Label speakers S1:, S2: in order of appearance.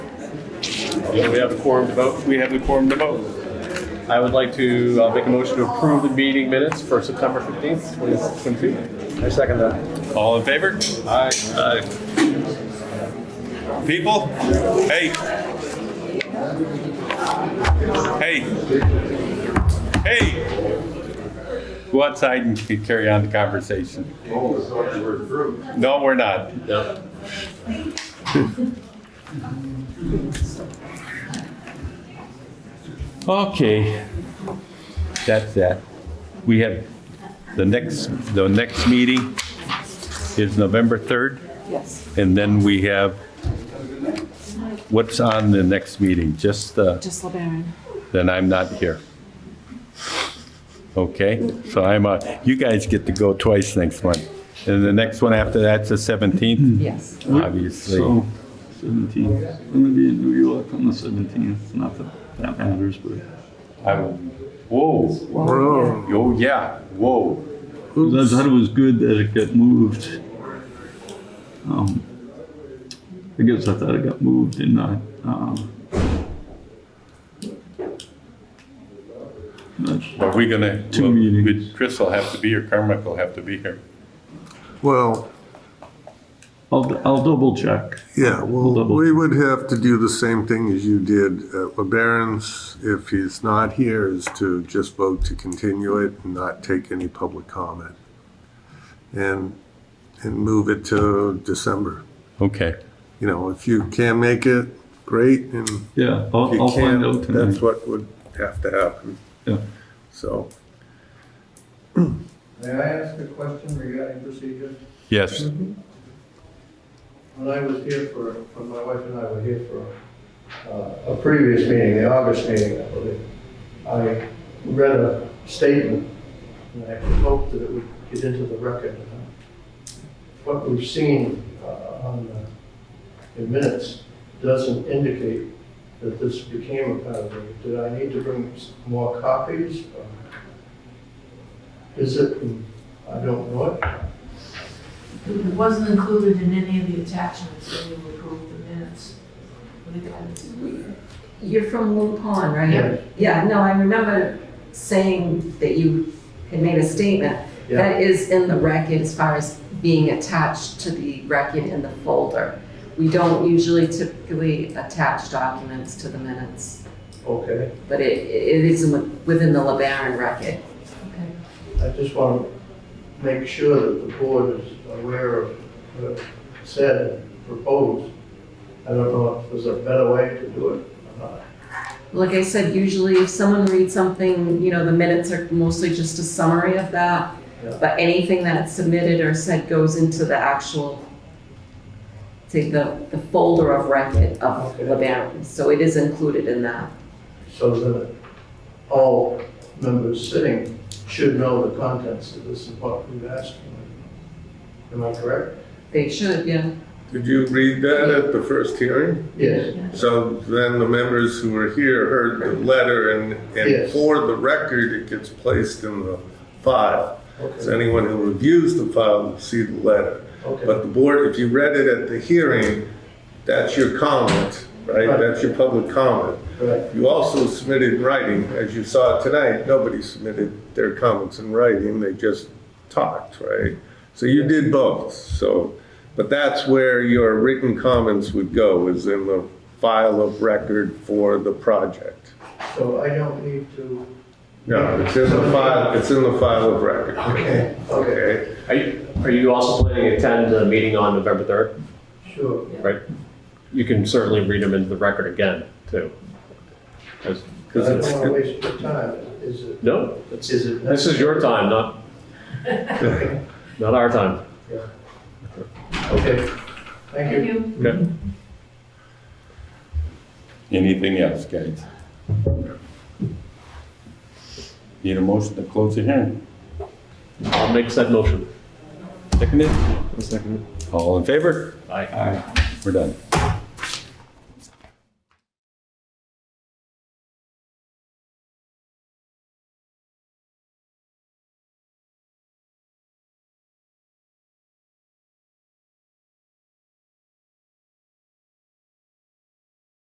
S1: We have a quorum to vote. We have the quorum to vote. I would like to uh, make a motion to approve the meeting minutes for September 15th, 2022.
S2: I second that.
S3: All in favor?
S1: Aye.
S3: Aye. People, hey. Hey. Hey. Go outside and c- carry on the conversation. No, we're not.
S1: Yep.
S3: Okay. That's that. We have, the next, the next meeting is November 3rd,
S4: Yes,
S3: and then we have, what's on the next meeting? Just the,
S4: just LeBaron.
S3: then I'm not here. Okay, so I'm, uh, you guys get to go twice next month. And the next one after that's the 17th,
S4: Yes.
S3: obviously.
S5: So, 17th. I'm gonna be in New York on the 17th. Not that that matters, but
S3: I will- Whoa,
S4: Well,
S3: oh yeah, whoa.
S5: I thought it was good that it got moved. Um, I guess I thought it got moved and not, um, not
S3: Are we gonna,
S5: Two
S3: well,
S5: meetings.
S3: Chris will have to be here, Carmichael will have to be here.
S6: Well,
S5: I'll, I'll double check.
S6: yeah, well,
S5: Double.
S6: we would have to do the same thing as you did at LeBaron's. If he's not here, is to just vote to continue it and not take any public comment. And, and move it to December.
S3: Okay,
S6: You know, if you can make it, great, and if
S5: Yeah, I'll,
S6: you
S5: I'll find out
S6: can't, that's
S5: tonight.
S6: what would have to happen,
S5: Yeah.
S6: so.
S7: May I ask a question regarding procedure?
S3: yes,
S7: When I was here for, when my wife and I were here for uh, a previous meeting, the August meeting, I believe, I read a statement, and I hoped that it would get into the record. What we've seen uh, on the in minutes doesn't indicate that this became a part of it. Did I need to bring s- more copies? or Is it, I don't know it.
S8: It wasn't included in any of the attachments when you approved the minutes. What did that-
S4: You're from Little Pond,
S7: Yeah.
S4: right? Yeah, no, I remember saying that you had made a statement.
S7: Yeah.
S4: That is in the record as far as being attached to the record in the folder. We don't usually typically attach documents to the minutes,
S7: Okay.
S4: but it, it is within the LeBaron record.
S8: Okay.
S7: I just want to make sure that the board is aware of what said and proposed. I don't know if there's a better way to do it or not.
S4: Like I said, usually if someone reads something, you know, the minutes are mostly just a summary of that.
S7: Yeah.
S4: But anything that's submitted or said goes into the actual, say, the, the folder of record of
S7: Okay.
S4: the LeBaron. So it is included in that.
S7: So that all members sitting should know the contents of this and what we've asked for. Am I correct?
S4: They should, yeah.
S6: Did you read that at the first hearing?
S7: Yes.
S6: So then the members who were here heard the letter and, and
S7: Yes.
S6: for the record, it gets placed in the file. So
S7: Okay.
S6: anyone who reviews the file will see the letter. But
S7: Okay.
S6: the board, if you read it at the hearing, that's your comment, right?
S7: Right.
S6: That's your public comment.
S7: Correct.
S6: You also submitted in writing, as you saw tonight, nobody submitted their comments in writing, they just talked, right? So you did both, so, but that's where your written comments would go, is in the file of record for the project.
S7: So I don't need to.
S6: No, it's in the file, it's in the file of record,
S7: Okay. Okay,
S6: okay?
S1: Are you, are you also planning to attend the meeting on November 3rd?
S7: sure.
S1: You can certainly read them into the record again, too. 'Cause-
S7: I
S1: 'cause
S7: don't want to
S1: it's-
S7: waste your time. Is it,
S1: No, it's-
S7: is it?
S1: this is your time, not, not our time.
S7: Okay. Thank you.
S8: Thank you.
S1: Okay.
S3: anything else, guys? Need a motion to close the hearing?
S1: I'll make said motion.
S3: Seconded? Seconded. All in favor?
S1: Aye.
S3: We're done.